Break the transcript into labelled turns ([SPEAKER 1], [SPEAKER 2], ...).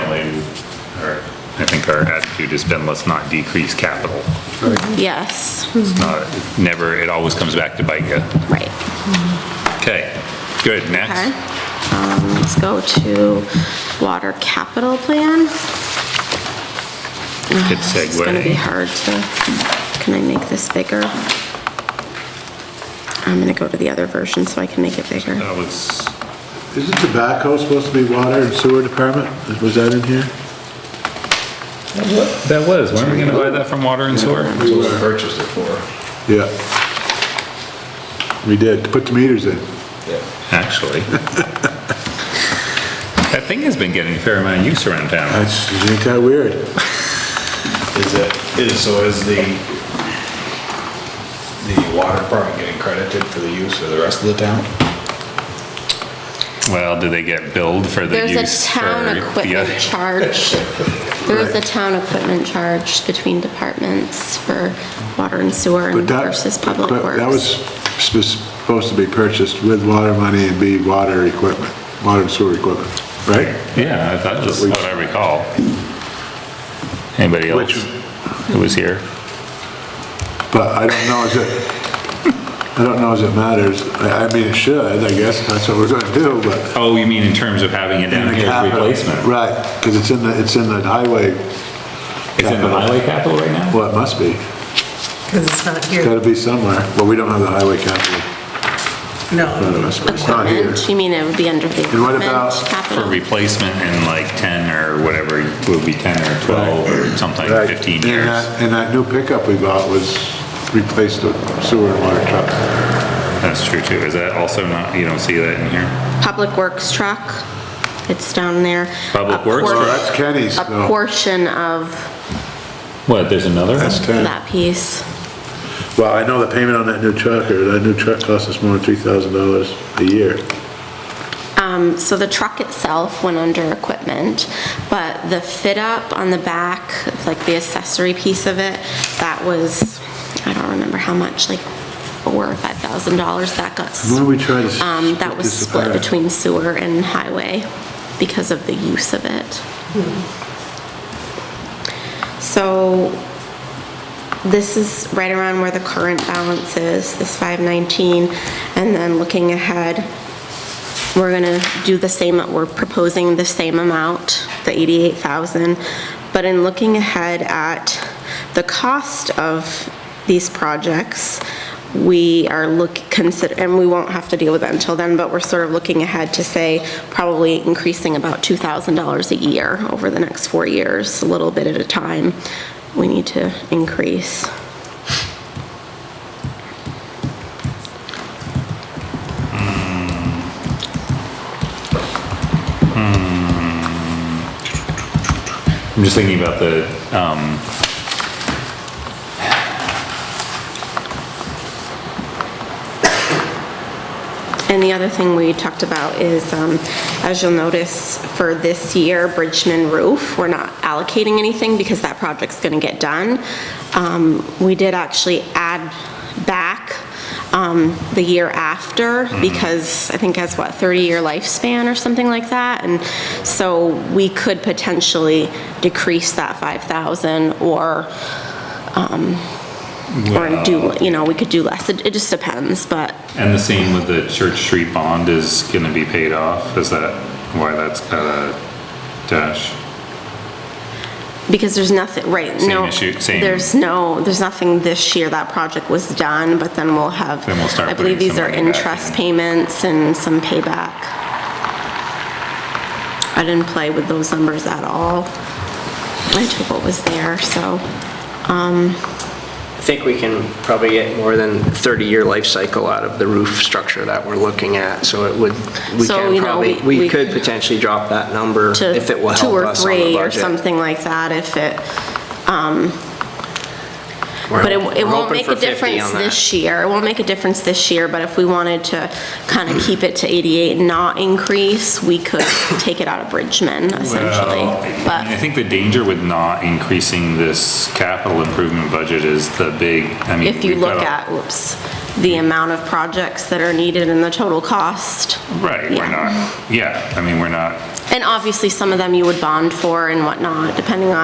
[SPEAKER 1] our attitude has been, let's not decrease capital.
[SPEAKER 2] Yes,
[SPEAKER 1] It's not, never, it always comes back to bite you.
[SPEAKER 2] right.
[SPEAKER 1] Okay, good,
[SPEAKER 2] Okay.
[SPEAKER 1] next.
[SPEAKER 2] Um, Let's go to water capital plan.
[SPEAKER 1] Good
[SPEAKER 2] It's gonna be
[SPEAKER 1] segue.
[SPEAKER 2] hard to, can I make this bigger? I'm gonna go to the other version so I can make it bigger.
[SPEAKER 1] That was,
[SPEAKER 3] Isn't tobacco supposed to be water and sewer department? Was that in here?
[SPEAKER 1] that was, weren't we gonna buy that from water and sewer?
[SPEAKER 4] That's what we purchased it for.
[SPEAKER 3] Yeah. We did, to put the meters in.
[SPEAKER 4] Yeah.
[SPEAKER 1] Actually. That thing has been getting a fair amount of use around town.
[SPEAKER 3] That's, isn't that weird?
[SPEAKER 4] Is it, is, so is the, the water department getting credited for the use of the rest of the town?
[SPEAKER 1] Well, do they get billed for the
[SPEAKER 2] There's a
[SPEAKER 1] use for
[SPEAKER 2] town
[SPEAKER 1] the
[SPEAKER 2] equipment
[SPEAKER 1] other?
[SPEAKER 2] charge. There is a town equipment charge between departments for water and sewer and
[SPEAKER 3] But that-
[SPEAKER 2] versus public
[SPEAKER 3] but
[SPEAKER 2] works.
[SPEAKER 3] That was sp- supposed to be purchased with water money and be water equipment, water and sewer equipment, right?
[SPEAKER 1] Yeah, I thought that's what I recall. Anybody else
[SPEAKER 3] Which-
[SPEAKER 1] who was here?
[SPEAKER 3] But I don't know as it, I don't know as it matters. I I mean, it should, I guess, that's what we're gonna do, but.
[SPEAKER 1] Oh, you mean in terms of having it down
[SPEAKER 3] the
[SPEAKER 1] here as
[SPEAKER 3] capital.
[SPEAKER 1] replacement?
[SPEAKER 3] Right, because it's in the, it's in the highway,
[SPEAKER 1] It's in the highway capital right now?
[SPEAKER 3] well, it must be.
[SPEAKER 5] Because it's not
[SPEAKER 3] It's
[SPEAKER 5] here.
[SPEAKER 3] gotta be somewhere. Well, we don't have the highway capital in front
[SPEAKER 5] No,
[SPEAKER 3] of us, but it's not here.
[SPEAKER 2] Equipment, you mean it would be under the
[SPEAKER 3] And what
[SPEAKER 2] equipment
[SPEAKER 3] about
[SPEAKER 1] For
[SPEAKER 2] capital?
[SPEAKER 1] replacement in like 10 or whatever, it would be 10 or 12 or something,
[SPEAKER 3] Right.
[SPEAKER 1] 15
[SPEAKER 3] And
[SPEAKER 1] years.
[SPEAKER 3] that- And that new pickup we bought was replaced the sewer and water truck.
[SPEAKER 1] That's true too. Is that also not, you don't see that in here?
[SPEAKER 2] Public Works truck, it's down there.
[SPEAKER 1] Public
[SPEAKER 2] A
[SPEAKER 1] Works
[SPEAKER 2] por-
[SPEAKER 1] truck?
[SPEAKER 3] Well, that's Kenny's,
[SPEAKER 2] A
[SPEAKER 3] though.
[SPEAKER 2] portion of
[SPEAKER 1] What, there's another?
[SPEAKER 3] That's 10.
[SPEAKER 2] that piece.
[SPEAKER 3] Well, I know the payment on that new truck, or that new truck costs us more than $3,000 a year.
[SPEAKER 2] Um, So the truck itself went under equipment, but the fit up on the back, like the accessory piece of it, that was, I don't remember how much, like four or five thousand dollars that got. s-
[SPEAKER 3] Why don't we try to s-
[SPEAKER 2] Um, that
[SPEAKER 3] split
[SPEAKER 2] was
[SPEAKER 3] this
[SPEAKER 2] split
[SPEAKER 3] apart?
[SPEAKER 2] between sewer and highway because of the use of it. So this is right around where the current balance is, this 519, and then looking ahead, we're gonna do the same, we're proposing the same amount, the 88,000, but in looking ahead at the cost of these projects, we are look, consider, and we won't have to deal with that until then, but we're sort of looking ahead to say probably increasing about $2,000 a year over the next four years, a little bit at a time, we need to increase.
[SPEAKER 1] I'm just thinking about the, um,
[SPEAKER 2] And the other thing we talked about is, um, as you'll notice, for this year, Bridgman Roof, we're not allocating anything because that project's going to get done. Um, We did actually add back um, the year after because I think has, what, 30-year lifespan or something like that? And so we could potentially decrease that 5,000 or um, or do, you know, we could do less. It it just depends, but
[SPEAKER 1] and the same with the Church Street bond is gonna be paid off. Is that why that's got a dash?
[SPEAKER 2] Because there's nothing, right,
[SPEAKER 1] Same
[SPEAKER 2] no.
[SPEAKER 1] issue, same-
[SPEAKER 2] There's no, there's nothing this year, that project was done, but then we'll have.
[SPEAKER 1] Then we'll start
[SPEAKER 2] I believe
[SPEAKER 1] putting
[SPEAKER 2] these
[SPEAKER 1] some
[SPEAKER 2] are
[SPEAKER 1] money back
[SPEAKER 2] interest
[SPEAKER 1] in.
[SPEAKER 2] payments and some payback. I didn't play with those numbers at all. I took what was there, so,
[SPEAKER 6] I think we can probably get more than 30-year life cycle out of the roof structure that we're looking at, so it would, we
[SPEAKER 2] So,
[SPEAKER 6] can
[SPEAKER 2] you know,
[SPEAKER 6] probably,
[SPEAKER 2] we- we-
[SPEAKER 6] we could potentially drop that number
[SPEAKER 2] to.
[SPEAKER 6] if it will
[SPEAKER 2] Two
[SPEAKER 6] help
[SPEAKER 2] or
[SPEAKER 6] us on the
[SPEAKER 2] three or
[SPEAKER 6] budget.
[SPEAKER 2] something like that, if it, um,
[SPEAKER 6] We're
[SPEAKER 2] but it
[SPEAKER 6] hoping-
[SPEAKER 2] it
[SPEAKER 6] we're
[SPEAKER 2] won't
[SPEAKER 6] hoping
[SPEAKER 2] make
[SPEAKER 6] for
[SPEAKER 2] a
[SPEAKER 6] 50
[SPEAKER 2] difference
[SPEAKER 6] on that.
[SPEAKER 2] this year. It won't make a difference this year, but if we wanted to kind of keep it to 88 and not increase, we could take it out of Bridgman essentially.
[SPEAKER 1] Well, Oh, I- I mean, I
[SPEAKER 2] But,
[SPEAKER 1] think the danger with not increasing this capital improvement budget is the big, I mean.
[SPEAKER 2] if you
[SPEAKER 1] we've
[SPEAKER 2] look
[SPEAKER 1] got a-
[SPEAKER 2] at, oops, the amount of projects that are needed and the total cost,
[SPEAKER 1] Right, we're
[SPEAKER 2] yeah.
[SPEAKER 1] not, yeah, I mean, we're not
[SPEAKER 2] and obviously some of them you would bond for and whatnot, depending on